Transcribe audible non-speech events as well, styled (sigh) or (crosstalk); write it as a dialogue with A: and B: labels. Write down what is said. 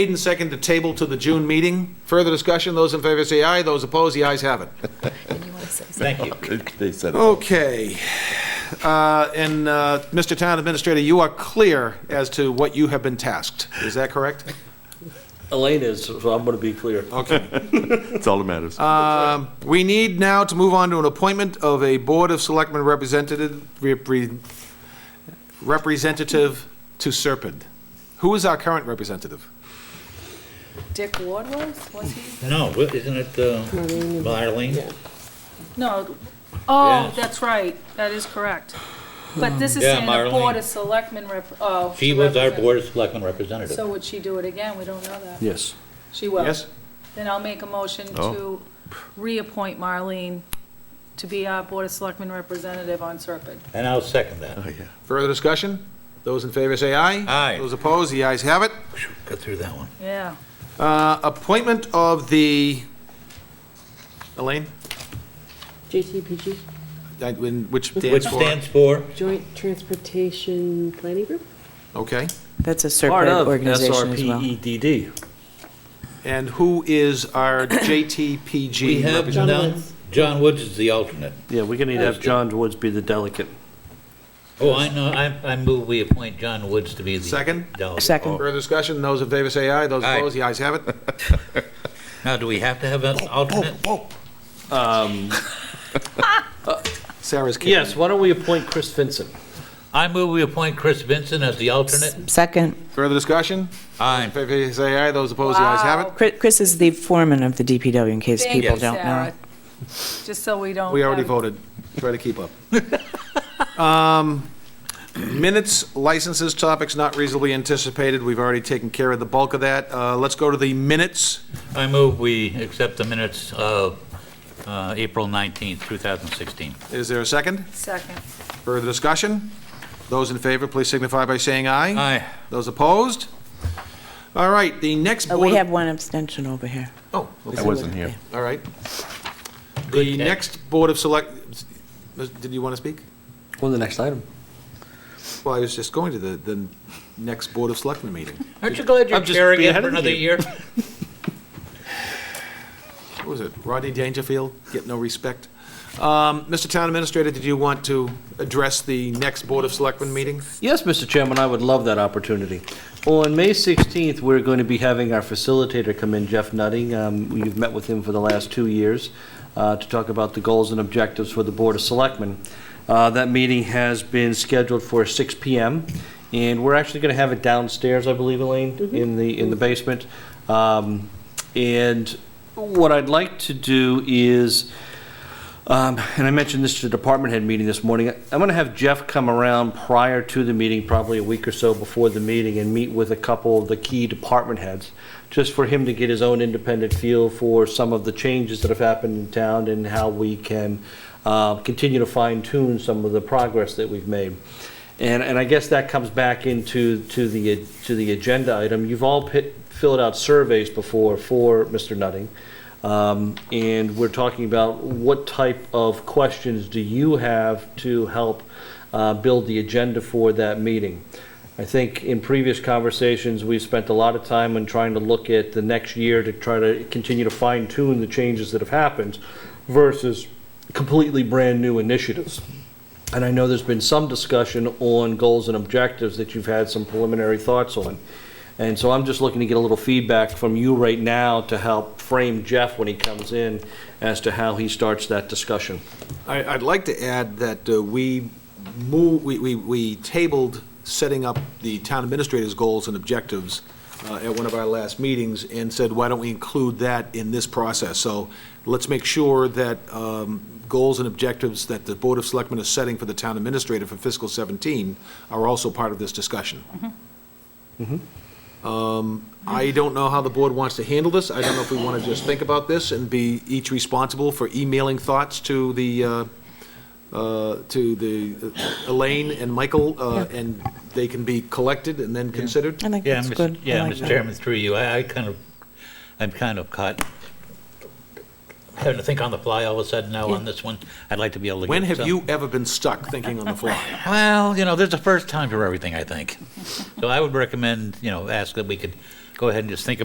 A: Made and second to table to the June meeting. Further discussion, those in favor say aye, those opposed, the ayes have it.
B: And you want to say something?
C: Thank you.
D: They said, it.
A: Okay. Uh, And uh, Mr. Town Administrator, you are clear as to what you have been tasked. Is that correct?
E: Elaine is, so I'm going to be clear.
A: Okay.
D: it's all that matters.
A: We need now to move on to an appointment of a Board of Selectmen representative, repre- representative to Serpent. Who is our current representative?
B: Dick Ward was, was he?
C: No, wh- isn't it, uh, well, Arlene?
B: No, oh,
C: Yes.
B: that's right, that is correct. But this is
C: Yeah,
B: saying the Board
C: Marlene.
B: of Selectmen rep, oh.
C: She
B: to
C: was our
B: represent-
C: Board of Selectmen representative.
B: So would she do it again? We don't know that.
E: Yes.
B: She will.
A: Yes?
B: Then I'll make a motion
D: Oh.
B: to reappoint Marlene to be our Board of Selectmen representative on Serpent.
C: And I'll second that.
D: Oh, yeah.
A: Further discussion? Those in favor say aye.
C: Aye.
A: Those opposed, the ayes have it.
C: Got through that one.
B: Yeah.
A: Uh, Appointment of the, Elaine,
F: JTPG,
A: That- when- which
C: Which
A: stands for?
C: stands for,
F: Joint Transportation Planning Group?
A: Okay.
G: That's a
E: Part
G: separate
E: of
G: organization as
E: E
G: well.
E: SRPEDD.
A: And who is
C: (coughs)
A: our
C: we
A: JTPG
C: have
A: representative?
C: none.
F: Woods.
C: John Woods is the alternate.
E: Yeah, we're going to need to have John Woods be the delegate.
C: Oh, I know, I, I move we appoint John Woods to be the.
A: Second?
C: delegate.
G: Second.
A: Further discussion? Those in favor say aye. Those
C: Oh. Aye.
A: opposed, the ayes have
C: (laughs)
A: it.
C: Now, do we have to have an alternate?
A: Sarah's kicking.
E: Yes, why don't we appoint Chris Vincent?
C: I move we appoint Chris Vincent as the alternate.
G: Second.
A: Further discussion?
C: Aye.
A: In favor say aye. Those opposed, the ayes have it.
B: Wow.
G: Chri- Chris is the foreman of the DPW, in case
B: Thank
G: people
B: you,
G: don't know.
B: Sarah. Just so we don't.
A: We already
B: have-
A: voted. Try to keep up. (laughs) Um, Minutes, licenses, topics not reasonably anticipated. We've already taken care of the bulk of that. Uh, Let's go to the minutes.
C: I move we accept the minutes of uh, April 19th, 2016.
A: Is there a second?
B: Second.
A: Further discussion? Those in favor, please signify by saying aye.
C: Aye.
A: Those opposed? All right, the next
G: Oh,
A: board...
G: We have one abstention over here.
A: Oh, okay,
D: I wasn't here.
A: all right. The
C: Good catch.
A: next Board of Select, did you want to speak?
E: On the next item.
A: Well, I was just going to the, the next Board of Selectmen meeting.
C: Aren't you glad you're
E: I'm just
C: chairing it for
E: beheading
C: another
E: you.
C: year?
A: What was it, Rodney Dangerfield, get no respect? Um, Mr. Town Administrator, did you want to address the next Board of Selectmen meeting?
E: Yes, Mr. Chairman, I would love that opportunity. On May 16th, we're going to be having our facilitator come in, Jeff Nutting. Um, We've met with him for the last two years uh, to talk about the goals and objectives for the Board of Selectmen. Uh, That meeting has been scheduled for 6 PM, and we're actually going to have it downstairs, I believe, Elaine, in the, in the basement. Um, And what I'd like to do is, um, and I mentioned this to the department head meeting this morning. I'm going to have Jeff come around prior to the meeting, probably a week or so before the meeting, and meet with a couple of the key department heads, just for him to get his own independent feel for some of the changes that have happened in town and how we can uh, continue to fine tune some of the progress that we've made. And, and I guess that comes back into, to the, to the agenda item. You've all pi- filled out surveys before for Mr. Nutting. Um, And we're talking about what type of questions do you have to help uh, build the agenda for that meeting? I think in previous conversations, we've spent a lot of time on trying to look at the next year to try to continue to fine tune the changes that have happened versus completely brand-new initiatives. And I know there's been some discussion on goals and objectives that you've had some preliminary thoughts on. And so I'm just looking to get a little feedback from you right now to help frame Jeff when he comes in as to how he starts that discussion.
A: I, I'd like to add that uh, we move, we, we, we tabled setting up the town administrator's goals and objectives uh, at one of our last meetings and said, why don't we include that in this process? So let's make sure that, um, goals and objectives that the Board of Selectmen is setting for the town administrator for fiscal 17 are also part of this discussion. Um, I don't know how the board wants to handle this. I don't know if we want to just think about this and be each responsible for emailing thoughts to the, uh, uh, to the uh, Elaine and Michael, uh, and they can be collected and then considered.
G: I think
C: (laughs) Yeah,
G: that's
C: Mr.
G: good. I
C: Yeah,
G: like
C: Mr.
G: that.
C: Chairman, through you, I, I kind of, I'm kind of caught having to think on the fly all of a sudden now on this one. I'd like to be able to.
A: When
C: get
A: have
C: some-
A: you ever been stuck thinking on the fly?
C: (laughs) Well, you know, there's a first time for everything, I think. So I would recommend, you know, ask that we could go ahead and just think